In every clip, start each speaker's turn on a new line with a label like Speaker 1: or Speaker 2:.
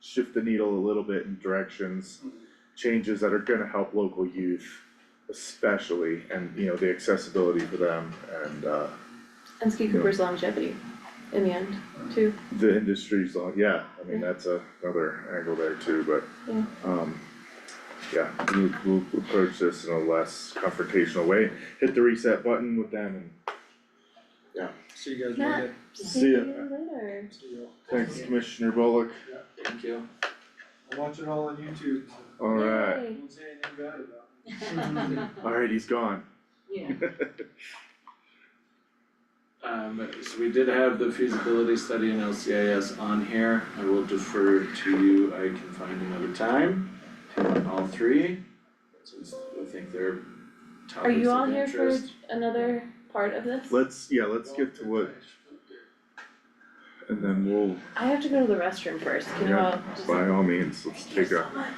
Speaker 1: shift the needle a little bit in directions.
Speaker 2: Mm-hmm.
Speaker 1: Changes that are gonna help local youth especially and, you know, the accessibility for them and uh
Speaker 2: And Ski Cooper's longevity in the end, too.
Speaker 1: the industry's on, yeah, I mean,
Speaker 2: Yeah.
Speaker 1: that's a- another angle there too, but
Speaker 2: Yeah.
Speaker 1: um yeah, we'll we'll approach this in a less confrontational way, hit the reset button with them and
Speaker 3: See you guys
Speaker 2: Matt.
Speaker 3: later.
Speaker 1: See ya.
Speaker 2: later.
Speaker 3: See you.
Speaker 1: Thanks, Commissioner Bullock.
Speaker 3: Thank you. I watch it all on YouTube, so
Speaker 1: Alright,
Speaker 2: Yay.
Speaker 3: don't say anything bad about it.
Speaker 1: alright, he's gone.
Speaker 4: Yeah.
Speaker 5: Um, so we did have the feasibility study in LCIS on here, I will defer to you, I can find another time to all three. Since I think they're topics of interest.
Speaker 2: Are you all here for another part of this?
Speaker 1: Let's, yeah, let's get to what, and then we'll,
Speaker 2: I have to go to the restroom first, can you all
Speaker 1: yeah,
Speaker 2: just?
Speaker 1: by all means, let's take a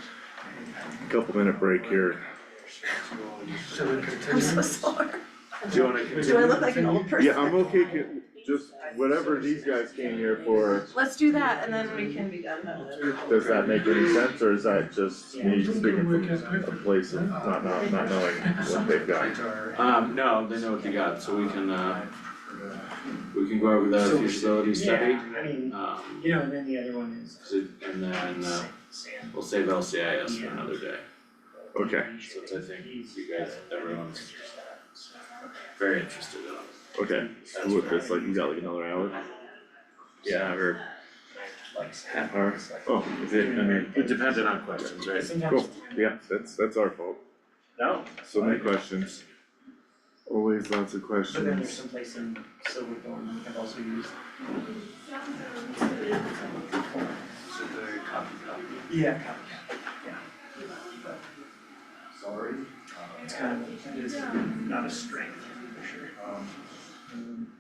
Speaker 1: couple minute break here.
Speaker 3: Shall we continue?
Speaker 6: I'm so sorry.
Speaker 5: Do you wanna
Speaker 6: Do I
Speaker 5: continue?
Speaker 6: look like an old person?
Speaker 1: Yeah, I'm okay, ca- just whatever these guys came here for,
Speaker 6: Let's do that and then we can be done with it.
Speaker 1: does that make any sense, or is that just me speaking from a place of not, not, not knowing what they've got?
Speaker 5: Um, no, they know what they got, so we can, uh, we can go over the feasibility study,
Speaker 7: Yeah, I mean,
Speaker 5: um,
Speaker 7: you know, and then the other one is.
Speaker 5: so- and then, uh, we'll save LCIS for another day.
Speaker 1: Okay,
Speaker 5: Since I think you guys, everyone's very interested in it.
Speaker 1: okay, so with this, like, we got like another hour?
Speaker 5: Yeah, or half hour.
Speaker 1: Oh,
Speaker 5: Is it, I mean, it depended on questions, right?
Speaker 1: cool, yeah, that's, that's our fault,
Speaker 7: No,
Speaker 1: so many questions. Always lots of
Speaker 7: but then there's
Speaker 1: questions.
Speaker 7: someplace in Silver Thorn that I've also used. Yeah, copy, yeah. Sorry. It's kind of, it is not a strength, for sure. Um,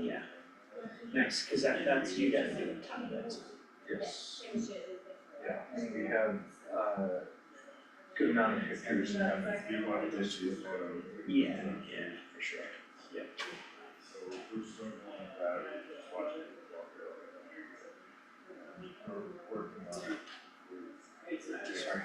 Speaker 7: Yeah. Nice, cause that, that's, you guys do a ton of those.
Speaker 3: Yes. Yeah, we have, uh, good amount of pictures and we want to just use photo.
Speaker 7: Yeah, yeah, for sure. Sorry.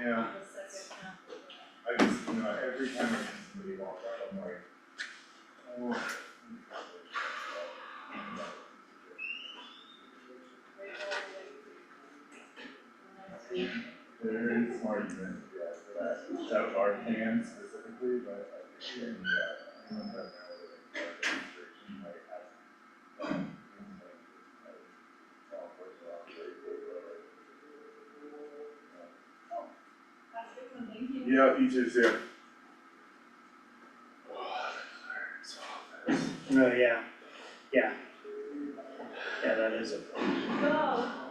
Speaker 3: Yeah. I just, you know, every time I see somebody walk out, I'm like, oh. There is an argument, yeah, for that, that our plan specifically, but I think, yeah, anyone that knows, like, restriction might have. um, things like, uh, all sorts of operations, uh,
Speaker 1: Yeah, you just, yeah.
Speaker 7: No, Oh, yeah, yeah. Yeah, that is a.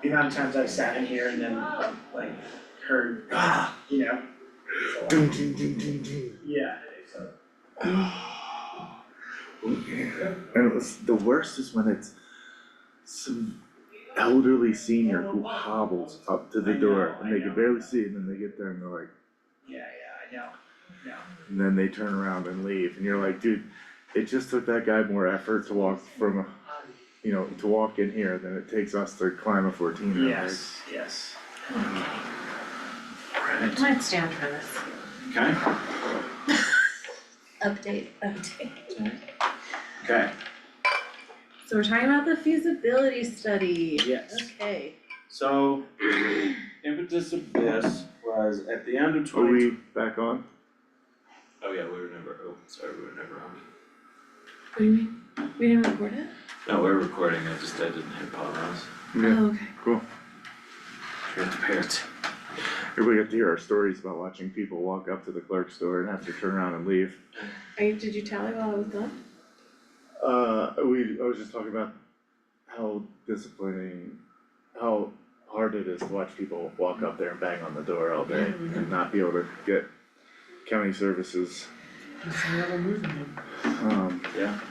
Speaker 7: The amount of times I sat in here and then like heard, ah, you know,
Speaker 1: Ding, ding, ding, ding, ding.
Speaker 7: yeah.
Speaker 1: And it was, the worst is when it's some elderly senior who hobbles up to the door and they can barely see it and then they get there and they're like,
Speaker 7: Yeah, yeah, I know.
Speaker 1: and then they turn around and leave and you're like, dude, it just took that guy more effort to walk from, a- you know, to walk in here than it takes us to climb a fourteen right?
Speaker 7: Yes, yes.
Speaker 6: I might stand for this.
Speaker 5: Okay,
Speaker 6: Update, update.
Speaker 5: okay,
Speaker 4: So we're talking about the feasibility study.
Speaker 5: yes.
Speaker 4: Okay.
Speaker 5: So impetus of this was at the end of
Speaker 1: Are
Speaker 5: twenty.
Speaker 1: we back on?
Speaker 5: Oh yeah, we were never, oh, sorry, we were never on.
Speaker 2: What do you mean? We didn't record it?
Speaker 5: No, we're recording, I just, I didn't hit pause.
Speaker 1: Yeah.
Speaker 2: Oh, okay.
Speaker 5: Transparent.
Speaker 1: Everybody got to hear our stories about watching people walk up to the clerk's door and have to turn around and leave.
Speaker 2: Are you, did you tally while I was gone?
Speaker 1: Uh, we, I was just talking about how disappointing, how hard it is to watch people walk up there and bang on the door all day and not be able to get county services.
Speaker 3: It's another movie.
Speaker 1: Um,